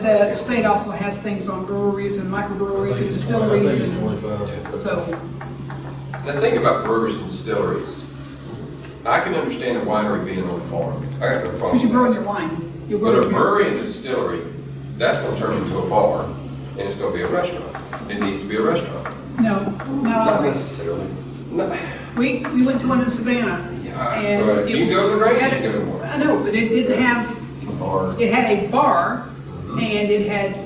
The state also has things on breweries and microbreweries and distilleries and, twenty-five. so, The thing about breweries and distilleries, I can understand a winery being on a farm. I got no problem. because you're with growing that. your wine. You're But growing a your brewery and distillery, that's gonna turn into a bar, and it's gonna be a restaurant. It needs to be a restaurant. No, not Not always. necessarily. We, we went to one in Savannah and Right. it You was. go to the it had range, a- you go to one. I know, but it didn't have, Bar. it had a bar and it had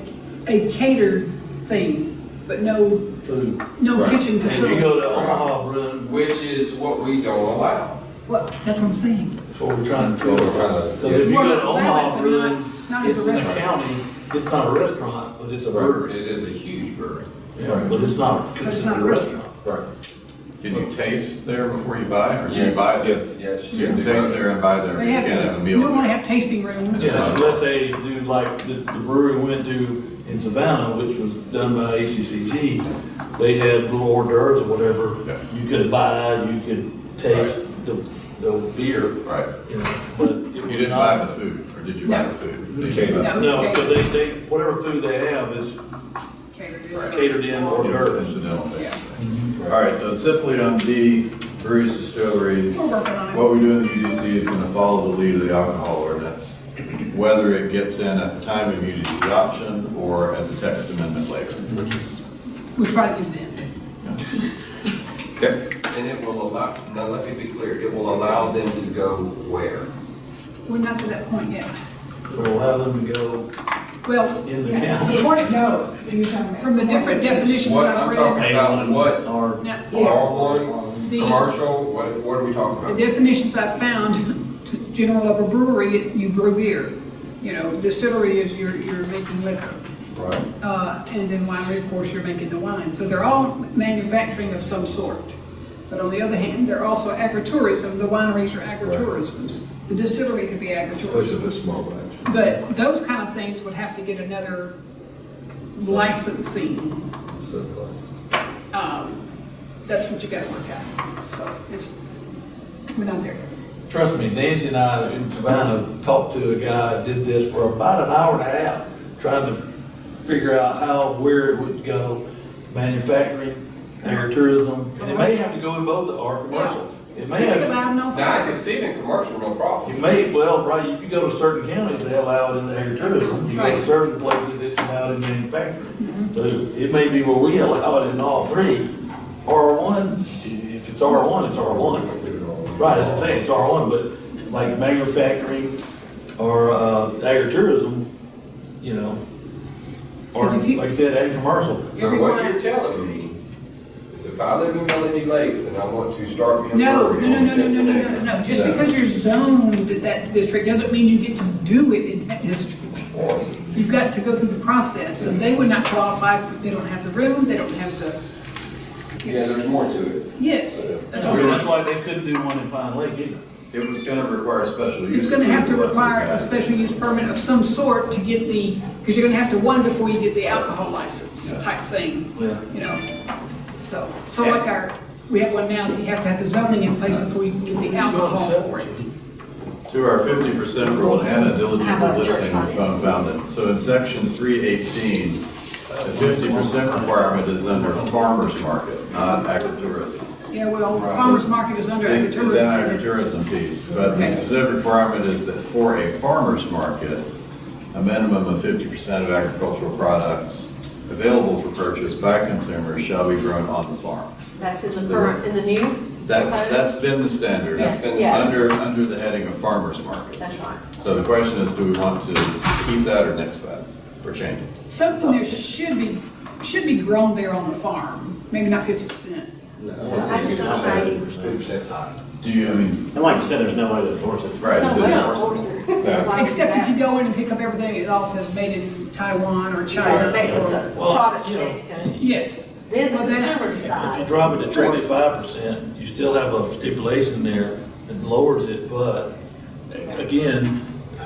a catered thing, but no, Food. no Right. kitchen And you facility. go to Omaha Brewing, Which is what we don't allow. Well, that's what I'm saying. that's what we're trying to do. Well, we're trying to- Because if you Well, go to allow it, Omaha but Brewing, not- not as it's a in the restaurant. county, it's not a restaurant, but it's a brewery. It is a huge brewery. Yeah, But it's not it's considered not a a restaurant. restaurant. Right. Can you taste there before you buy, or can you Yes. buy this? Yes. You can taste there and buy there, but They you have, can't have a you meal normally there. have tasting rooms. It's Yeah, not. unless they do like the the brewery we went to in Savannah, which was done by ACCG, they had little hors d'oeuvres or Yeah. whatever. You could buy, you could taste the, the beer, Right. you know, but it was not. You didn't buy the food, or did you buy No. the food? No, Did you buy the- No, it's because they, they, whatever food they have is Catered. catered in or It's served. incidental things. All right, so simply on D, breweries, distilleries, We're working on it. what we do in the UDC is gonna follow the lead of the alcohol ordinance, whether it gets in at the time of UDC option or as a text amendment later, which is, We try to get it in. okay. And it will allow, now let me be clear, it will allow them to go where? We're not to that point yet. We'll have them to go Well, in the county. Where'd it go? Are you talking about- from the different definitions What I've I'm read, talking- About what? Or now, R one, The- commercial, what, what are we talking the about? definitions I found, t- general of a brewery, you brew beer. You know, distillery is you're, you're making liquor. Right. Uh, and then winery, of course, you're making the wine. So they're all manufacturing of some sort. But on the other hand, they're also agritourism. The wineries are agritourisms. The distillery could be agritourism. a small batch. But those kind of things would have to get another licensing um, that's what you gotta work out. So it's, we're not there. Trust me, Nancy and I in Savannah talked to a guy, that did this for about an hour and a half, trying to figure out how, where it would go, manufacturing, agritourism, and it may have to go in both, or commercial. It may Could be have, allowed no Now, I fun. can see it in commercial, no you problem. may, well, right, if you go to certain counties, they allow it in the agritourism. You go to Right. Mm-hmm. certain places, it's allowed in manufacturing. So it may be where we allow it in all three. R one, if it's R one, it's R one. Right, that's what I'm saying, it's R1, but like manufacturing or uh, agritourism, you know, or 'Cause if you- like I said, ag commercial. So what you're telling me is if I live in Melody Lakes and I want to start me a No, no, brewery no, on no, no, no, no, no, Japanese, no. Just because you're zoned at that district doesn't mean you get to do it in that district. or- You've got to go through the process, and they would not qualify for, they don't have the room, they don't have the, Yeah, there's more to it. yes. That's what I'm That's saying. why they couldn't do one in Pine Lake either. It was gonna require a special use. It's gonna have to approval, wasn't require a it? special use permit of some sort to get the, because you're gonna have to one before you get the alcohol license type thing. Yeah. you know, so, so like our, we have one now that you have to have the zoning in place before you can get the alcohol for it. To our fifty percent rule, and Hannah How diligently about listening, church we found, found it. So in section three eighteen, the fifty percent requirement is under farmer's market, not agritourism. Yeah, well, farmer's market is under It's it's an agritourism. agritourism piece, but the specific requirement is that for a farmer's market, a minimum of fifty percent of agricultural products available for purchase by consumers shall be grown on the farm. That's in the current, in the new? That's, code? that's been the standard. Yes, It's been yes. Under, under the heading of farmer's market. That's right. So the question is, do we want to keep that or nix that, or change it? Something there should be, should be grown there on the farm, maybe not fifty percent. I just don't say, Do you, I mean, And like you said, there's no way to enforce it. right, no, is we don't it, force it. Why would Except if that? you go in and pick up everything, it all says made in Taiwan or Or China. Mexico, Well, product you know, Mexico. Yes, Then the Well, then- consumer If you decides. drop it to twenty-five percent, you still have a stipulation there that lowers it, but again,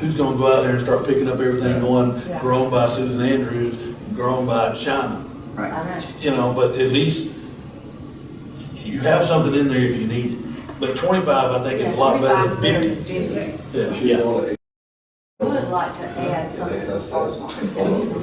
who's gonna go out there and start picking up everything going Yeah. grown by Susan Andrews, grown by China? I know. you know, but at least you have something in there if you need it. But twenty-five, I think, is a lot better than Yeah, fifty. 25 is better than 50. Yeah, yeah. Good. would like to add something. that's us. farmer's market.